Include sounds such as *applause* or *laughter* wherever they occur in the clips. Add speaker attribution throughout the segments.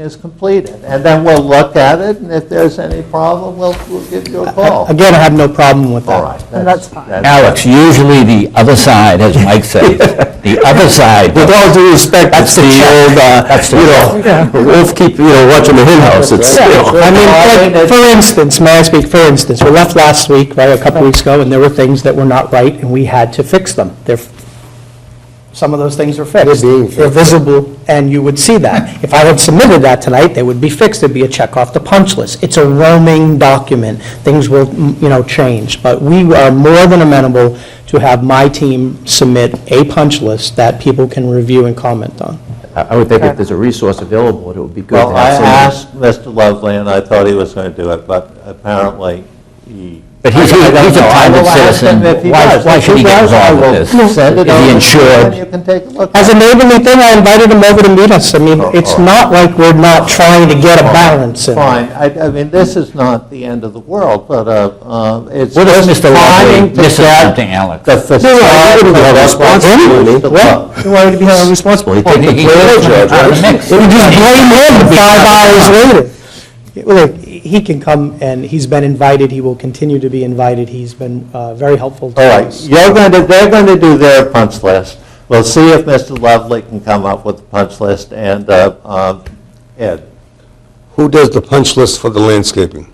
Speaker 1: is completed. And then we'll look at it, and if there's any problem, we'll, we'll give you a
Speaker 2: Oh.
Speaker 1: call.
Speaker 3: Again, I have no problem with that.
Speaker 1: All right.
Speaker 4: that's fine.
Speaker 5: Alex, usually the other side, as Mike
Speaker 6: *laughs*
Speaker 5: says, the other side.
Speaker 2: With all due respect, it's the old, uh,
Speaker 5: That's the-
Speaker 2: you know, wolf keep, you know, watching the hen house, it's, you know.
Speaker 3: I mean, for- for instance, may I speak, for instance, we left last week, right, a couple weeks ago, and there were things that were not right, and we had to fix them. They're, some of those things are fixed.
Speaker 2: They're being fixed.
Speaker 3: They're visible, and you would see that. If I had submitted that tonight, they would be fixed, there'd be a check off the punch list. It's a roaming document, things will, mm, you know, change, but we are more than amenable to have my team submit a punch list that people can review and comment on.
Speaker 6: I I would think if there's a resource available, it would be good
Speaker 1: Well,
Speaker 6: to
Speaker 1: I
Speaker 6: have someone.
Speaker 1: asked Mr. Lovely, and I thought he was going to do it, but apparently he...
Speaker 5: But he's, he's
Speaker 1: I don't
Speaker 5: a
Speaker 1: know. I
Speaker 5: private
Speaker 1: will ask
Speaker 5: citizen.
Speaker 1: him if he
Speaker 5: Why,
Speaker 1: does.
Speaker 5: why
Speaker 1: If
Speaker 5: should he get
Speaker 1: does, I
Speaker 5: involved
Speaker 1: will
Speaker 5: with this?
Speaker 1: send it
Speaker 5: Is
Speaker 1: over to
Speaker 5: he
Speaker 1: you, and
Speaker 5: insured?
Speaker 1: you can take a look
Speaker 3: As
Speaker 1: at
Speaker 3: a
Speaker 1: it.
Speaker 3: neighborly thing, I invited him over to meet us. I mean,
Speaker 1: Uh-huh.
Speaker 3: it's not like we're not trying to get a balance in.
Speaker 1: Fine, I, I mean, this is not the end of the world, but uh, uh, it's
Speaker 5: What if
Speaker 1: just trying
Speaker 5: Mr. Lovely
Speaker 1: to
Speaker 5: misses
Speaker 1: get
Speaker 5: something, Alex?
Speaker 1: the
Speaker 2: I
Speaker 1: facade
Speaker 2: wouldn't be held responsible,
Speaker 1: to look.
Speaker 3: Well, why would he be held responsible?
Speaker 5: He- he- he- out of the mix.
Speaker 3: We just blame
Speaker 1: *laughs*
Speaker 3: him five hours later. Look, he can come, and he's been invited, he will continue to be invited, he's been uh, very helpful to
Speaker 1: All right,
Speaker 3: us.
Speaker 1: you're going to, they're going to do their punch list. We'll see if Mr. Lovely can come up with a punch list, and uh, um, Ed.
Speaker 2: Who does the punch list for the landscaping?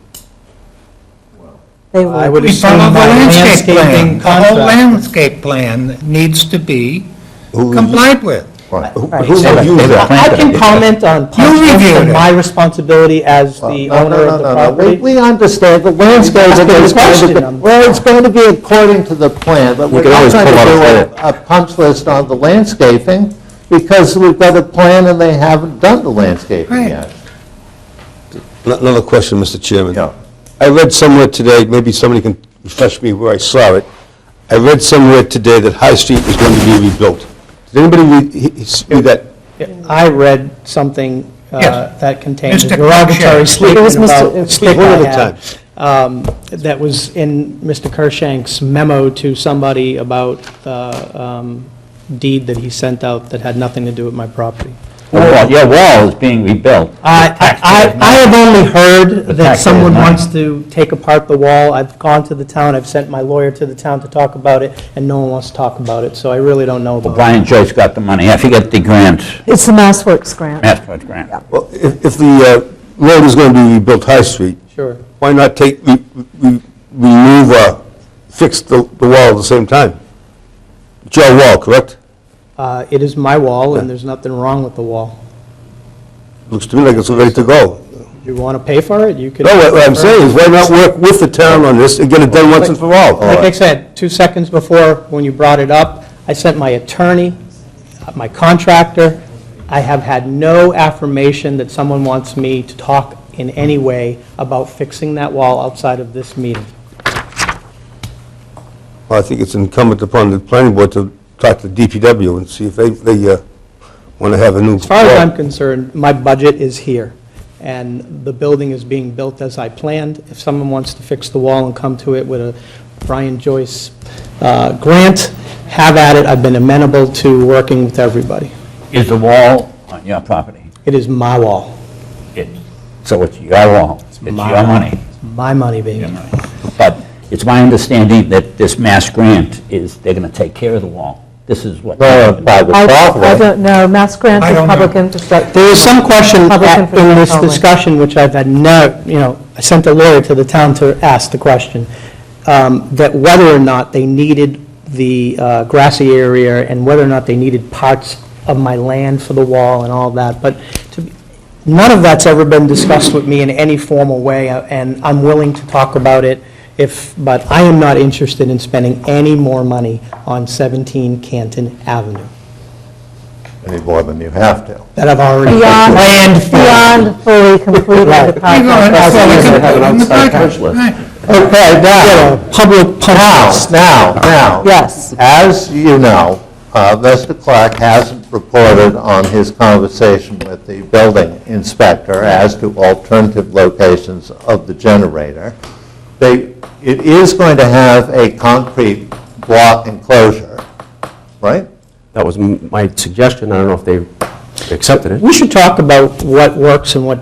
Speaker 3: I
Speaker 4: They will.
Speaker 3: would
Speaker 7: We
Speaker 3: assume
Speaker 7: follow the
Speaker 3: my
Speaker 7: landscape plan.
Speaker 3: landscaping
Speaker 7: The whole
Speaker 3: contract.
Speaker 7: landscape plan needs to be
Speaker 2: Who-
Speaker 7: complied with.
Speaker 2: Who
Speaker 3: Right.
Speaker 2: who reviews
Speaker 5: David,
Speaker 2: that?
Speaker 5: David.
Speaker 3: I can comment on punch lists
Speaker 7: reviewed
Speaker 3: and
Speaker 7: it.
Speaker 3: my responsibility as the
Speaker 1: Uh, No, no,
Speaker 3: owner of
Speaker 1: no,
Speaker 3: the
Speaker 1: no, no. We-
Speaker 3: property.
Speaker 1: We understand, the landscape
Speaker 3: That's
Speaker 1: is
Speaker 3: the
Speaker 1: going
Speaker 3: question
Speaker 1: to be,
Speaker 3: I'm-
Speaker 1: well, it's going to be according to the plan, but we're
Speaker 2: can
Speaker 1: not
Speaker 2: always
Speaker 1: going to
Speaker 2: pull out a
Speaker 1: do a, a punch list on the landscaping, because we've got a plan and they haven't done the landscaping
Speaker 7: Right.
Speaker 1: yet.
Speaker 2: Another question, Mr. Chairman.
Speaker 1: Yeah.
Speaker 2: I read somewhere today, maybe somebody can refresh me where I saw it. I read somewhere today that High Street is going to be rebuilt. Did anybody read, he- he- see that?
Speaker 3: I read something uh,
Speaker 7: Yes.
Speaker 3: that contained a
Speaker 7: Mr.
Speaker 3: derogatory
Speaker 7: Cruikshank.
Speaker 4: It
Speaker 3: statement
Speaker 4: was Mr.
Speaker 3: about
Speaker 4: it-
Speaker 3: stick
Speaker 2: One at a
Speaker 3: I had, um, that was in Mr. Kershank's memo to somebody about the um, deed that he sent out that had nothing to do with my property.
Speaker 5: Your wall- Your wall is being rebuilt.
Speaker 3: I, I, I have only heard
Speaker 5: The
Speaker 3: that
Speaker 5: taxpayer's
Speaker 3: someone
Speaker 5: money.
Speaker 3: wants to take apart the wall. I've gone to the town, I've sent my lawyer to the town to talk about it, and no one wants to talk about it, so I really don't know about it.
Speaker 5: Brian Joyce got the money. I forget the grant,
Speaker 4: It's the Mass Works grant.
Speaker 5: MassDOT grant.
Speaker 2: Well, if if the uh, road is going to be rebuilt, High Street,
Speaker 3: Sure.
Speaker 2: why not take, re- re- remove, uh, fix the the wall at the same time? It's your wall, correct?
Speaker 3: Uh, It is my wall, and there's nothing wrong with the wall.
Speaker 2: Looks to me like it's ready to go.
Speaker 3: You want to pay for it, you could.
Speaker 2: No, what what I'm saying is, why not work with the town on this and get it done once and for all?
Speaker 3: Like I said, two seconds before, when you brought it up, I sent my attorney, my contractor. I have had no affirmation that someone wants me to talk in any way about fixing that wall outside of this meeting.
Speaker 2: Well, I think it's incumbent upon the planning board to talk to DPW and see if they, they want to have a new.
Speaker 3: As far as I'm concerned, my budget is here, and the building is being built as I planned. If someone wants to fix the wall and come to it with a Brian Joyce uh, grant, have at it. I've been amenable to working with everybody.
Speaker 5: Is the wall on your property?
Speaker 3: It is my wall,
Speaker 5: It- So it's your wall. It's your
Speaker 3: my-
Speaker 5: money.
Speaker 3: my money, baby.
Speaker 5: But it's my understanding that this Mass grant is, they're going to take care of the wall. This is what.
Speaker 4: I I don't know, Mass grant
Speaker 7: I
Speaker 4: is
Speaker 7: don't know.
Speaker 4: public infrastructure.
Speaker 3: There was some question
Speaker 4: Public
Speaker 3: at- in this
Speaker 4: information only.
Speaker 3: discussion, which I've had no, you know, I sent a lawyer to the town to ask the question, um, that whether or not they needed the uh, grassy area and whether or not they needed parts of my land for the wall and all that, but to be- none of that's ever been discussed with me in any formal way, uh, and I'm willing to talk about it if, but I am not interested in spending any more money on 17 Canton Avenue
Speaker 1: Any more than you have to.
Speaker 3: that I've already
Speaker 4: Beyond-
Speaker 3: planned for.
Speaker 4: Beyond fully completed
Speaker 3: Right.
Speaker 4: the
Speaker 7: You know,
Speaker 4: project.
Speaker 7: it's
Speaker 1: so we can
Speaker 7: all like a-
Speaker 1: have an
Speaker 7: in the
Speaker 1: outside
Speaker 7: project,
Speaker 1: punch list.
Speaker 7: right.
Speaker 1: Okay, now,
Speaker 3: public
Speaker 1: now, now, now.
Speaker 4: Yes.
Speaker 1: As you know, uh, Mr. Clark hasn't reported on his conversation with the building inspector as to alternative locations of the generator. They, it is going to have a concrete block enclosure, right?
Speaker 6: That was m- my suggestion, I don't know if they accepted it.
Speaker 3: We should talk about what works and what